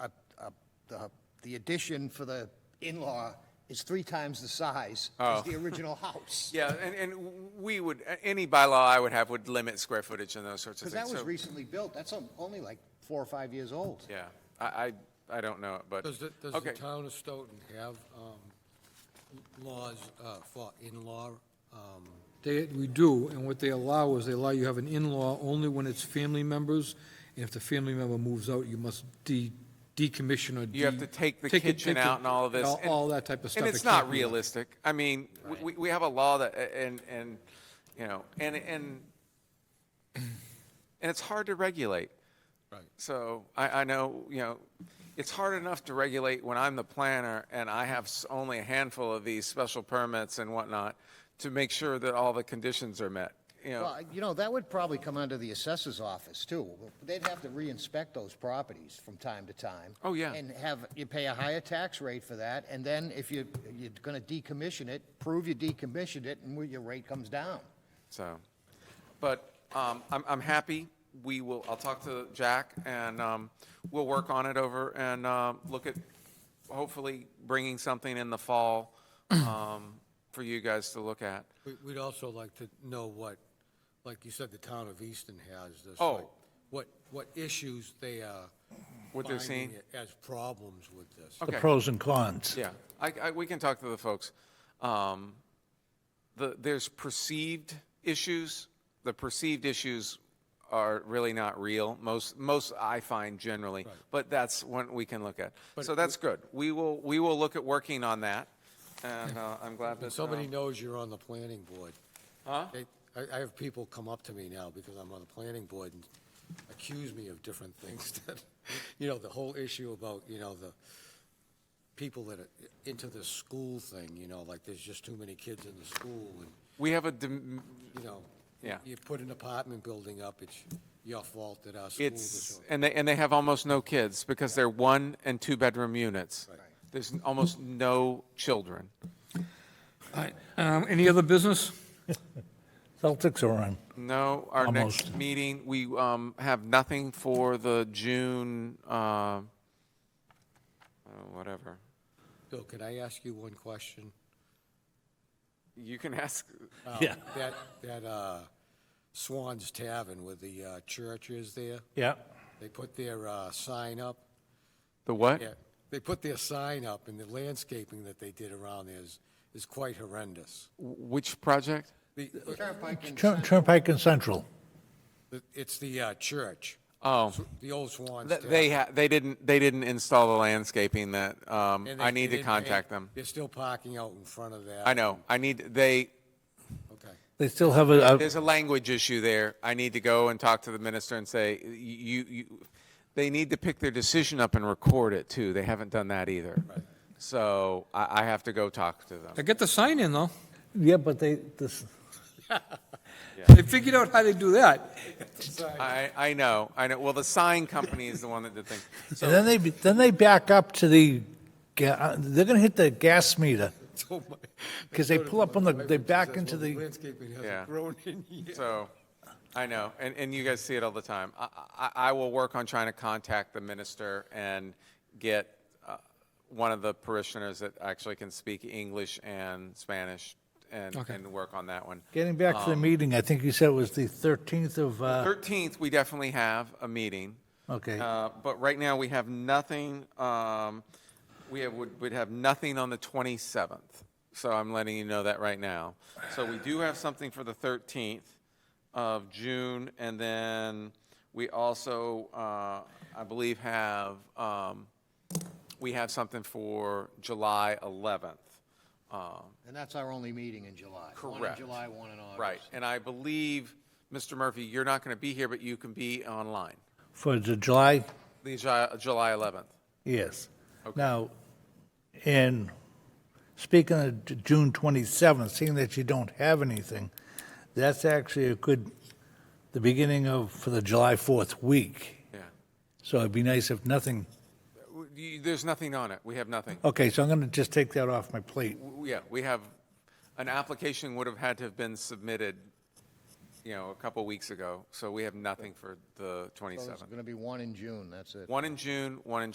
uh, the, the addition for the in-law is three times the size as the original house. Oh. Yeah, and, and we would, any bylaw I would have would limit square footage and those sorts of Because things. that was So, recently built, that's on- only like four or five years old. Yeah, I, I, I don't know, but, Does the, does the okay. town of Stoughton have um, laws uh, for in-law? um, They, we do, and what they allow is they allow you have an in-law only when it's family members, and if the family member moves out, you must de, decommission or de. You have to take the it- kitchen take it- out and all of this. All, and- all that type of stuff. And It it's can't not be that. realistic. I mean, we- we, we have a law that, and, and, you know, and, and, and it's hard to regulate. Right. So I, I know, you know, it's hard enough to regulate when I'm the planner and I have s- only a handful of these special permits and whatnot to make sure that all the conditions are met, you know. Well, you know, that would probably come under the assessor's office, too. They'd have to re-inspect those properties from time to time. Oh, yeah. And have, you pay a higher tax rate for that, and then if you, you're gonna decommission it, prove you decommissioned it, and your rate comes down. So, but um, I'm, I'm happy. We will, I'll talk to Jack and um, we'll work on it over and um, look at hopefully bringing something in the fall um, for you guys to look at. we- We'd also like to know what, like you said, the town of Easton has this. Oh. like, What, what issues they are. What they're finding seeing? As problems with this. the Okay. pros and cons. Yeah, I, I, we can talk to the folks. Um, the, there's perceived issues. The perceived issues are really not real. Most, most I find generally, but that's one we can look at. So that's good. We will, we will look at working on that. And, uh, I'm glad When that. somebody um, knows you're on the planning board. Huh? I, I have people come up to me now because I'm on the planning board and accuse me of different things that, you know, the whole issue about, you know, the people that are into the school thing, you know, like there's just too many kids in the school and, We have a, dim- you know. Yeah. You put an apartment building up, it's your fault that our school it's, is. and they, and they have almost no kids because they're one and two bedroom units. There's almost no children. All right, Um, any other business? Celtics are on. No, our next Almost. meeting, we um, have nothing for the June, uh, uh, whatever. Bill, can I ask you one question? You can ask, Oh. Yeah, That, that, uh, Swan's Tavern where the, uh, church is there? yeah. They put their uh, sign up, the what? yeah, they put their sign up, and the landscaping that they did around there is, is quite horrendous. Which project? The- Turnpike and Turn- Turnpike and Central. the- It's the uh, church, Oh, the old Swan's. th- Tavern. they, ha- they didn't, they didn't install the landscaping that, um, And they- I need they to didn't- contact and them. They're still parking out in front of that. I know, I need, they, Okay, They still have a, a- there's a language issue there. I need to go and talk to the minister and say, "Y- you, you, they need to pick their decision up and record it too. They haven't done that either. So I, I have to go talk to them. I get the sign in, though. yeah, but they, this, They figured out how to do that. I, I know, I know. Well, the sign company is the one that did things. and then they, then they back up to the, ga- uh, they're gonna hit the gas meter. Oh Because they pull up on the, they back into the, Landscaping Yeah. hasn't grown in years. So, I know, and, and you guys see it all the time. I, I, I will work on trying to contact the minister and get uh, one of the parishioners that actually can speak English and Spanish and, Okay. and work on that one. getting back to the Oh. meeting, I think you said it was the 13th of, uh, 13th, we definitely have a meeting. Okay. Uh, But right now, we have nothing, um, we have, would would have nothing on the 27th. So I'm letting you know that right now. So we do have something for the 13th of June, and then we also, uh, I believe, have, um, we have something for July 11th. Um, And that's our only meeting in July. One in Correct. July, one in August. Right, and I believe, Mr. Murphy, you're not going to be here, but you can be online. for the July, The Ju- July 11th. yes. Now, in, speaking of J- June 27th, seeing that you don't have anything, that's actually a good, the beginning of, for the July 4th week. Yeah. So it'd be nice if nothing, W- you- There's nothing on it. We have nothing. okay, so I'm going to just take that off my plate. W- Yeah, we have, an application would have had to have been submitted, you know, a couple weeks ago, so we have nothing for the So There's 27th. gonna be one in June, that's it. One in June, one in